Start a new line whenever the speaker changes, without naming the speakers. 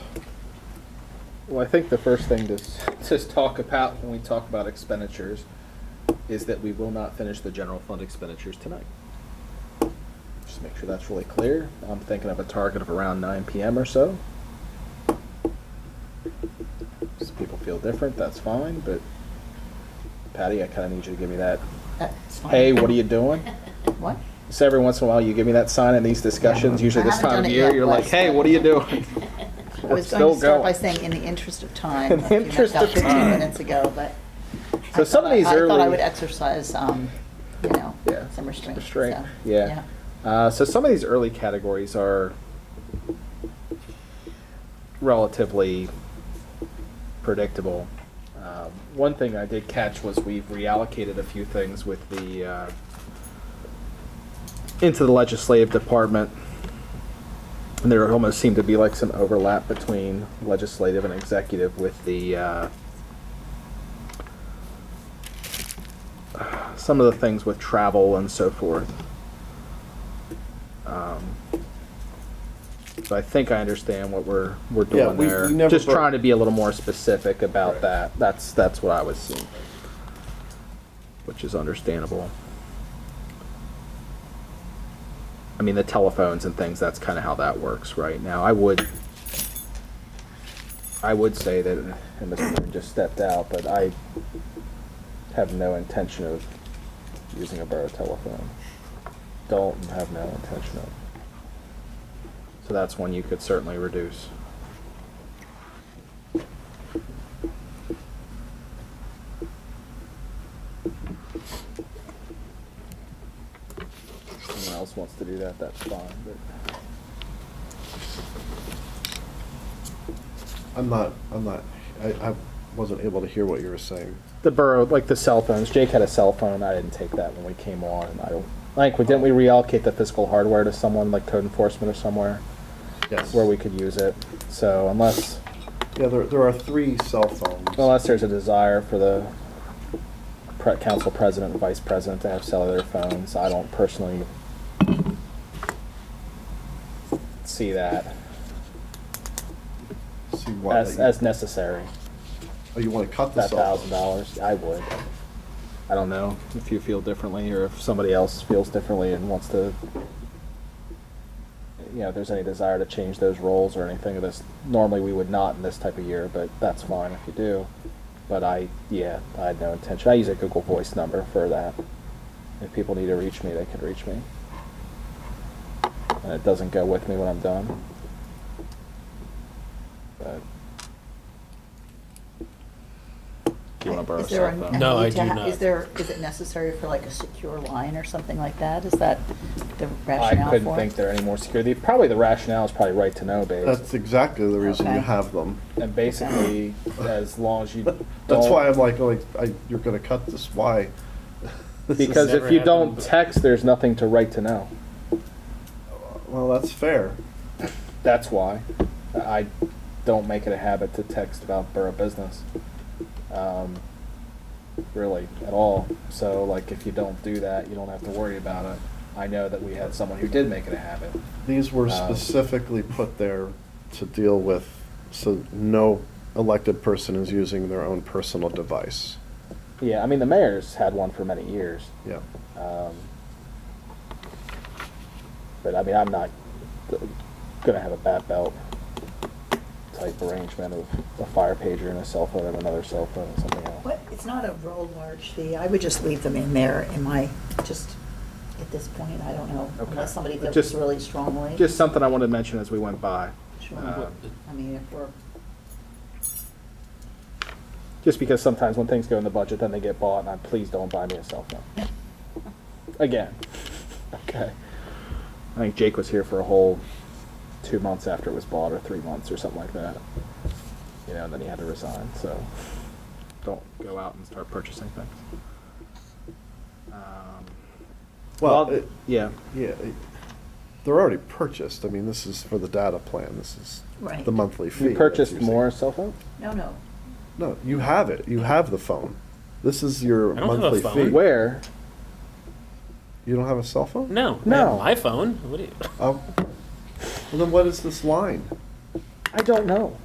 Well, I think the first thing to, s- to talk about when we talk about expenditures is that we will not finish the general fund expenditures tonight. Just make sure that's really clear. I'm thinking of a target of around nine PM or so. Some people feel different, that's fine, but Patty, I kinda need you to give me that,
That's fine.
hey, what are you doing?
What?
So every once in a while, you give me that sign in these discussions, usually
I
this
haven't
time
done
of
it
year,
yet,
you're like,
Wes.
hey, what are you doing?
I was
It's
going
still
to start by
going.
saying, in the interest of time.
In the
a few minutes-
interest
about
of
15
time.
minutes ago, but. I
So some of
thought I-
these
I thought I
early-
would exercise, um, you know,
Yeah,
some restraint.
Restraint,
so,
yeah. Uh, so some of these early categories are relatively predictable. Um, one thing I did catch was we've reallocated a few things with the uh, into the legislative department. And there almost seemed to be like some overlap between legislative and executive with the uh, some of the things with travel and so forth. Um, so I think I understand what we're we're doing
Yeah, we-
there.
we never
Just
broke-
trying to be a little more specific about
Right.
that. That's that's what I was seeing, which is understandable. I mean, the telephones and things. That's kind of how that works right now. I would. I would say that, and Mr. Moon just stepped out, but I have no intention of using a borough telephone. Don't and have no intention of. So that's one you could certainly reduce. Someone else wants to do that, that's fine, but
I'm not, I'm not, I, I wasn't able to hear what you were saying.
the borough, like the cell phones, Jake had a cell phone, I didn't take that when we came on, and I don't, like, we- didn't we reallocate the physical hardware to someone, like code enforcement or somewhere?
Yes.
where we could use it. So unless,
Yeah, there, there are three cell phones.
unless there's a desire for the pre- council president and vice president to have cellular phones, I don't personally see that
See why
as,
that you-
as necessary.
oh, you want to cut the
That
cell
thousand
phone?
dollars, I would. I don't know if you feel differently or if somebody else feels differently and wants to, you know, if there's any desire to change those roles or anything of this. Normally, we would not in this type of year, but that's fine if you do. But I, yeah, I had no intention. I use a Google Voice number for that. If people need to reach me, they can reach me. And Uh, it doesn't go with me when I'm done. But. Do you want to borrow
Is there a-
something?
a
No,
need
I
to
do
ha-
not.
Is there, is it necessary for like a secure line or something like that? Is that the
I
rationale for it?
couldn't think they're any more secure. The, probably the rationale is probably right to know based.
That's exactly the reason you
Okay.
have them.
and basically, as long as you don't,
That's why I'm like, like, I, you're gonna cut this, why? This is-
because if
never
you
happened,
don't
but-
text, there's nothing to write to know.
Well, that's fair.
That's why I don't make it a habit to text about borough business, um, really at all. So like, if you don't do that, you don't have to worry about it. I know that we had someone who did make it a habit.
These were
Um,
specifically put there to deal with, so no elected person is using their own personal device.
Yeah, I mean the mayor's had one for many years.
Yeah.
Um, but I mean, I'm not th- gonna have a bat belt type arrangement of a fire pager and a cell phone and another cell phone and something else.
What, it's not a real large fee, I would just leave them in there, in my, just, at this point, I don't know,
Okay.
unless somebody feels
Just-
really strongly.
Just something I wanted to mention as we went by.
Sure.
Uh,
I mean, if we're,
Just because sometimes when things go in the budget, then they get bought, and I, please don't buy me a cell phone. Again. Okay. I think Jake was here for a whole two months after it was bought, or three months, or something like that. You know, and then he had to resign, so don't go out and start purchasing things. Um,
Well, it-
yeah.
yeah, it- they're already purchased. I mean, this is for the data plan. This is
Right.
the monthly fee.
You
that's
purchased
using-
more cell phones?
no, no,
No, you have it. You have the phone. This is your
I don't have a
monthly
phone.
fee.
Where?
You don't have a cell phone?
No,
No.
no, my phone. What do you?
Oh. Well, then what is this line?
I don't know.